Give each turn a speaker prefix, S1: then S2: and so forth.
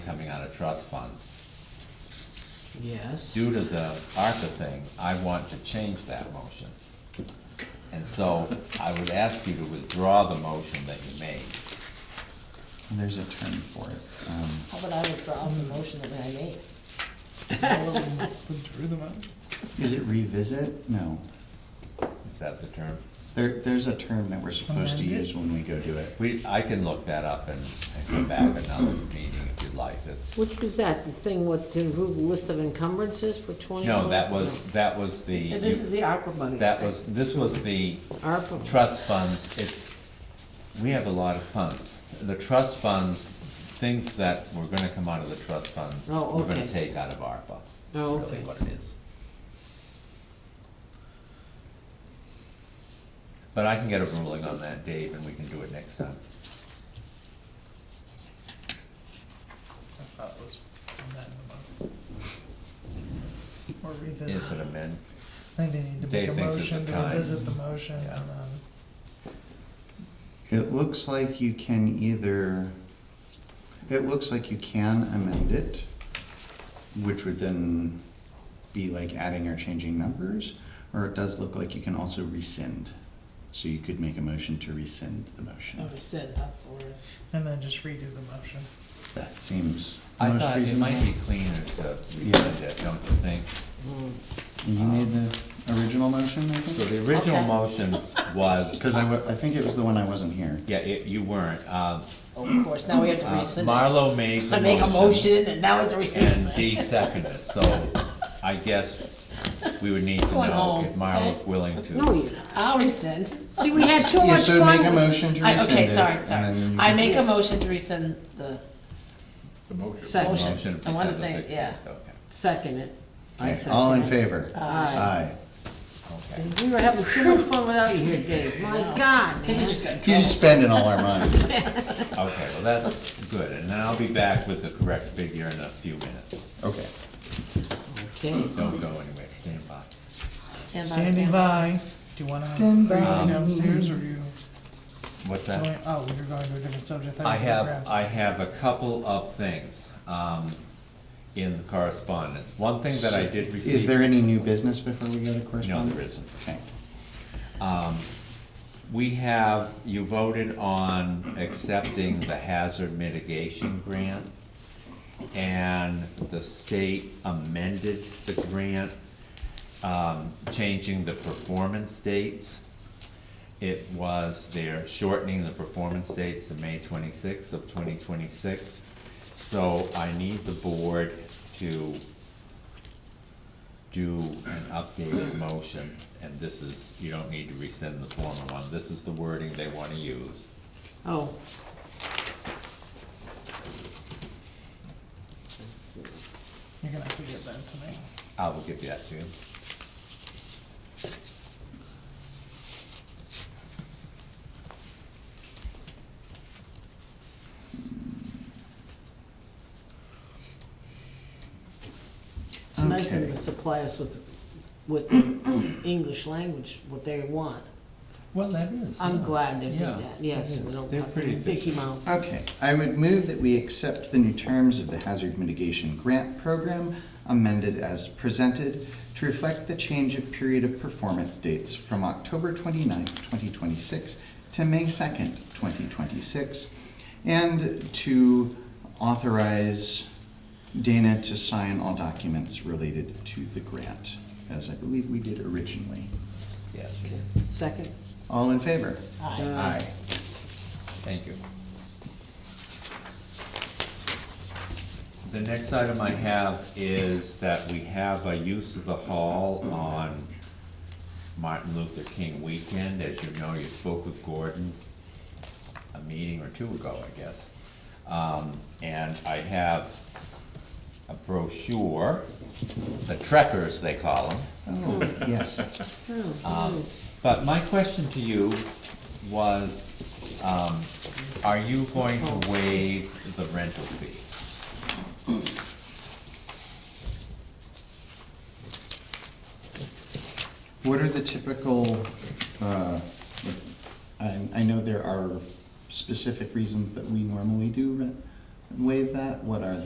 S1: coming out of trust funds.
S2: Yes.
S1: Due to the ARPA thing, I want to change that motion. And so I would ask you to withdraw the motion that you made.
S3: There's a term for it. Um,
S2: How about I withdraw the motion that I made?
S3: Is it revisit? No.
S1: Is that the term?
S3: There, there's a term that we're supposed to use when we go do it.
S1: We, I can look that up and, and come back another meeting if you'd like. That's-
S4: Which was that, the thing with, to approve the list of encumbrances for twenty?
S1: No, that was, that was the.
S2: This is the ARPA money.
S1: That was, this was the
S4: ARPA,
S1: trust funds, it's, we have a lot of funds. The trust funds, things that were gonna come out of the trust funds,
S4: Oh,
S1: we're gonna
S4: okay.
S1: take out of ARPA. is
S4: Oh,
S1: Really
S4: okay.
S1: what it is. But I can get a ruling on that, Dave, and we can do it next time.
S5: I thought it was amendment. Or
S1: Is
S5: revisit.
S1: it amend?
S5: I think they need to make
S1: Dave
S5: a
S1: thinks it's the
S5: motion to
S1: time.
S5: revisit the motion um, and then,
S3: It looks like you can either, it looks like you can amend it, which would then be like adding or changing numbers, or it does look like you can also rescind. So you could make a motion to rescind the motion.
S2: Understood, that's the word.
S5: and then just redo the motion.
S3: That seems
S1: I
S3: most
S1: thought it
S3: reasonable.
S1: might be cleaner to rescind it, don't you think?
S3: You made the original motion, I
S1: So
S3: think?
S1: the original
S2: Okay.
S1: motion was,
S3: Because I, wa- I think it was the one I wasn't here.
S1: yeah, it- you weren't, um,
S2: Of course, now we have to
S1: Uh,
S2: rescind it.
S1: Marlo made the
S2: I make a motion and now we have to rescind
S1: And
S2: it.
S1: Dee seconded it, so I guess we would need to
S2: Going
S1: know
S2: home,
S1: if Marlo's
S2: okay?
S1: willing
S4: no,
S1: to.
S4: you,
S2: I'll rescind.
S4: see, we had so
S3: Yeah,
S4: much
S3: so make a
S4: fun.
S3: motion to
S2: I-
S3: rescind
S2: Okay,
S3: it,
S2: sorry,
S3: and
S2: sorry.
S3: then you
S2: I
S3: can-
S2: make a motion to rescind the,
S4: Second,
S2: Motion.
S1: to
S2: I wanna
S1: December
S2: say, yeah.
S1: 16th, okay,
S4: second it. I
S3: Okay,
S4: second
S3: All in
S4: it.
S3: favor?
S4: Aye.
S3: Aye.
S1: okay.
S4: We were having too much fun without you here, Dave, my God,
S2: Maybe
S4: man.
S2: just got
S3: You're just
S2: trouble.
S3: spending all our money.
S1: Okay, well, that's good, and then I'll be back with the correct figure in a few minutes.
S3: Okay.
S4: Okay,
S1: Don't go anywhere, stand by.
S2: Stand by,
S5: Standing
S2: stand by.
S5: by, do you wanna
S3: Stand by.
S5: go downstairs or you?
S1: What's
S5: going-
S1: that?
S5: Oh, you're going to a different subject. thought
S1: I
S5: you were
S1: have,
S5: grabs.
S1: I have a couple of things, um, in the correspondence. One thing that I did receive.
S3: Is there any new business before we go to
S1: No,
S3: correspondence?
S1: there isn't.
S3: Okay.
S1: We have, you voted on accepting the hazard mitigation grant, and the state amended the grant, um, changing the performance dates. It was, they're shortening the performance dates to May twenty-sixth of twenty twenty-six. So I need the board to do an updated motion, and this is, you don't need to rescind the former one, this is the wording they wanna use.
S4: oh.
S5: You're gonna have to get that to me.
S1: I will give that to you.
S4: It's nice of them
S3: Okay.
S4: to supply us with, with English language, what they want.
S1: Well, that is.
S4: I'm
S1: yeah.
S4: glad they did
S1: Yeah,
S4: that, yes,
S1: it
S4: we
S1: is.
S4: don't
S1: They're
S4: have to
S1: pretty
S4: be Mickey
S1: efficient.
S4: Mouse.
S3: Okay, I would move that we accept the new terms of the Hazard Mitigation Grant Program amended as presented to reflect the change of period of performance dates from October 29, twenty-six to May second, twenty twenty-six, and to authorize Dana to sign all documents related to the grant, as I believe we did originally.
S1: Yes, it is.
S4: Second?
S3: All in favor? Aye.
S1: Thank you. The next item I have is that we have a use of the hall on Martin Luther King weekend. As you know, you spoke with Gordon a meeting or two ago, I guess. Um, and I have a brochure, the trekkers, they call them.
S3: Oh, yes.
S1: Um, But my question to you was, um, are you going to waive the rental fee?
S3: What are the typical, uh, I, I know there are specific reasons that we normally do re- waive that, what are